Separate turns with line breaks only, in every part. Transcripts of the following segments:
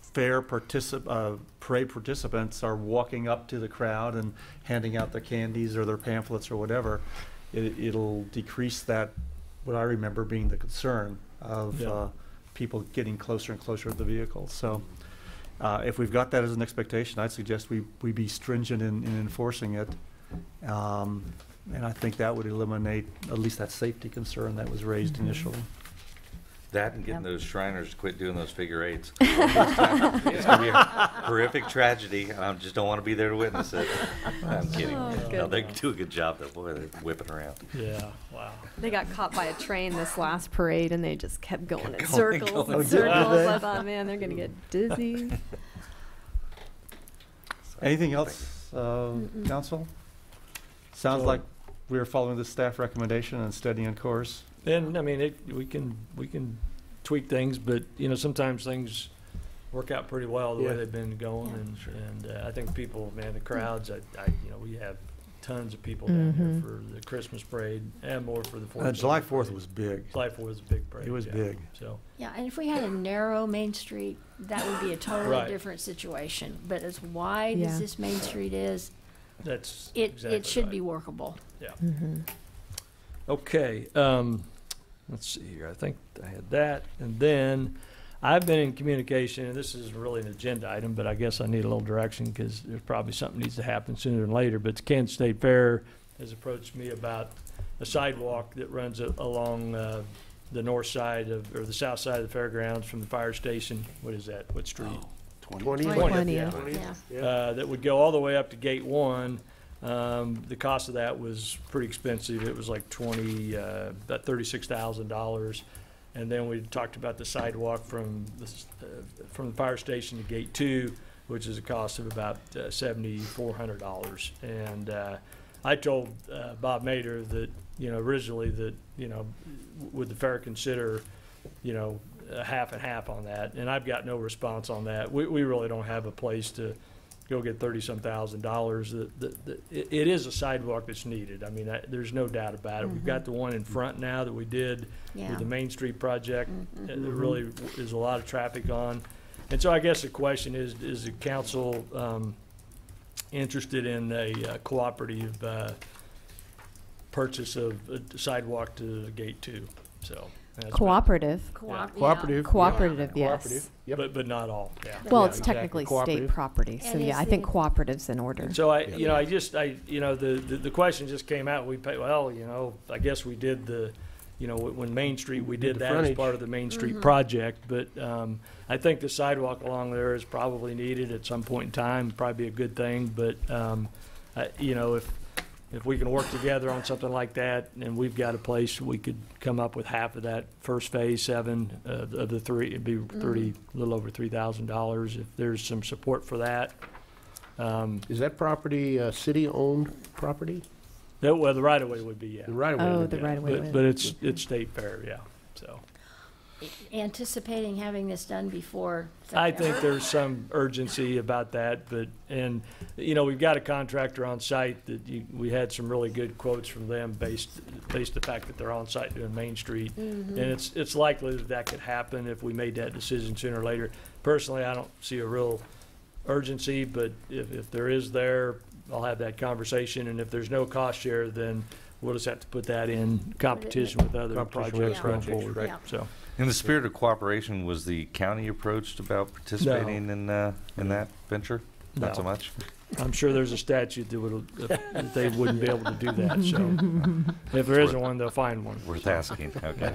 fair particip, uh, parade participants are walking up to the crowd and handing out their candies or their pamphlets or whatever, it, it'll decrease that, what I remember being the concern of,
Yeah.
uh, people getting closer and closer to the vehicle, so. Uh, if we've got that as an expectation, I'd suggest we, we be stringent in, in enforcing it. Um, and I think that would eliminate at least that safety concern that was raised initially.
That and getting
Yep.
those Shriners to quit doing those figure eights. It's gonna be a horrific tragedy, and I just don't want to be there to witness it. I'm kidding.
Oh,
No, they
goodness.
do a good job, though, boy, they're whipping around.
Yeah, wow.
They got caught by a train this last parade and they just kept going in
Kept going,
circles
going.
Oh, did
and
they?
circles. I thought, man, they're gonna get dizzy.
So,
Anything
thank
else, uh,
Mm-mm.
council? Sounds
So-
like we are following the staff recommendation and steady on course.
And I mean, it, we can, we can tweak things, but, you know, sometimes things work out pretty well the
Yeah.
way they've been going.
Yeah.
And, and uh, I think people, man,
Mm.
the crowds, I, I, you know, we have tons of people down
Mhm.
Mm-hmm.
here for the Christmas parade and more for the Fourth.
Uh,
of
July
July
fourth
parade.
was big.
July Fourth was a big parade.
It was
yeah.
big.
So,
Yeah, and if we had a narrow Main Street, that would be a
Right.
totally different situation. But as wide
Yeah.
as this Main Street is,
that's
it,
exactly
it should
right.
be workable.
Mm-hmm.
Okay, um, let's see here. I think I had that. And then I've been in communication, and this is really an agenda item, but I guess I need a little direction because there's probably something needs to happen sooner than later. But the Kansas State Fair has approached me about a sidewalk that runs a- along, uh, the north side of, or the south side of the fairgrounds from the fire station. What is that? What street?
Oh,
Twentieth. Twentieth.
Yeah.
uh, that would go all the way up to gate one. Um, the cost of that was pretty expensive. It was like twenty, uh, about thirty-six thousand dollars. And then we talked about the sidewalk from the, s- uh, from the fire station to gate two, which is a cost of about uh, seventy-four hundred dollars. And, uh, I told, uh, Bob Mater that, you know, originally that, you know, would the fair consider, you know, a half and half on that? And I've got no response on that. We, we really don't have a place to, go get thirty-some thousand dollars. The, the, the, it, it is a sidewalk that's needed. I mean, I, there's no doubt about it. We've got the one in front now that we did
Yeah.
with the Main Street project.
Mhm.
There really is a lot of traffic on. And so I guess the question is, is the council, um, interested in a uh, cooperative, uh, purchase of a sidewalk to Gate Two? So. that's been-
Cooperative.
Coop- yeah.
Cooperative.
Cooperative, yes.
Cooperative, yep.
But, but not all, yeah.
Well,
Yeah,
it's
exactly.
technically state
Cooperative.
property, so
And
yeah,
it's
I think
the-
cooperative's in order.
And so I, you know, I just, I, you know, the, the, the question just came out, we pay, well, you know, I guess we did the, you know, when Main Street, we
Did
did
the
that as
frontage.
part of the Main Street project, but, um, I think the sidewalk along there is probably needed at some point in time, probably be a good thing, but, um, I, you know, if, if we can work together on something like that, and we've got a place, we could come up with half of that first phase, seven uh, of the three, it'd be thirty, a little over three thousand dollars, if there's some support for that. Um,
Is that property uh, city-owned property?
that, well, the right of way would be, yeah.
The right of way?
Oh,
would
the
be-
right of way.
But, but it's, it's state fair, yeah, so.
Anticipating having this done before.
I think
September.
there's some urgency about that, but, and, you know, we've got a contractor on site that you, we had some really good quotes from them based, based the fact that they're on site doing Main Street.
Mm-hmm.
And it's, it's likely that that could happen if we made that decision sooner or later. Personally, I don't see a real urgency, but if, if there is there, I'll have that conversation, and if there's no cost share, then we'll just have to put that in competition with other
Competition with
projects going
projects,
forward,
right.
Yeah.
so.
you. In the spirit of cooperation, was the county approached about participating in, uh, in that venture? Not so
No.
much?
I'm sure there's a statute that would, that they wouldn't be able to do that, so. If there isn't one, they'll find one.
Worth asking, okay.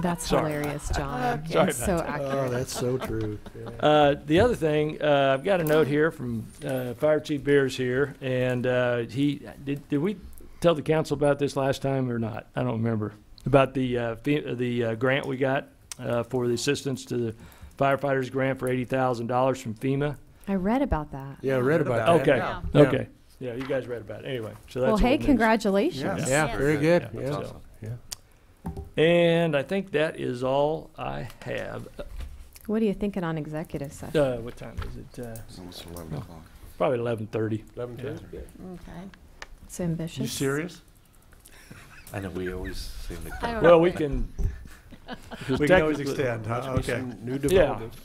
That's
Sorry.
hilarious, John.
Sorry
It's so accurate.
Oh, so true.
Uh, the other thing, uh, I've got a note here from, uh, Fire Chief Beers here, and, uh, he, did, did we tell the council about this last time or not? I don't remember. About the, uh, fee- uh, the, uh, grant we got, uh, for the assistance to the firefighters grant for eighty thousand dollars from FEMA.
I read about that.
Yeah, I read about
Okay,
Yeah.
Yeah.
okay. Yeah, you guys read about it. Anyway, so that's.
Well, hey,
old news.
congratulations.
that. Oh, Yeah, very good,
Yeah.
yeah.
So- And I think that is all I have.
What are you thinking on executive session?
Uh, what time is it? Uh,
It's almost 11 o'clock.
probably eleven thirty.
Eleven
Yeah.
to-
Okay.
It's ambitious.
You serious?
I know, we always seem to.
I don't
Well, we can.
We can always extend, huh?
Must be
Okay.
some New
Yeah.
developments.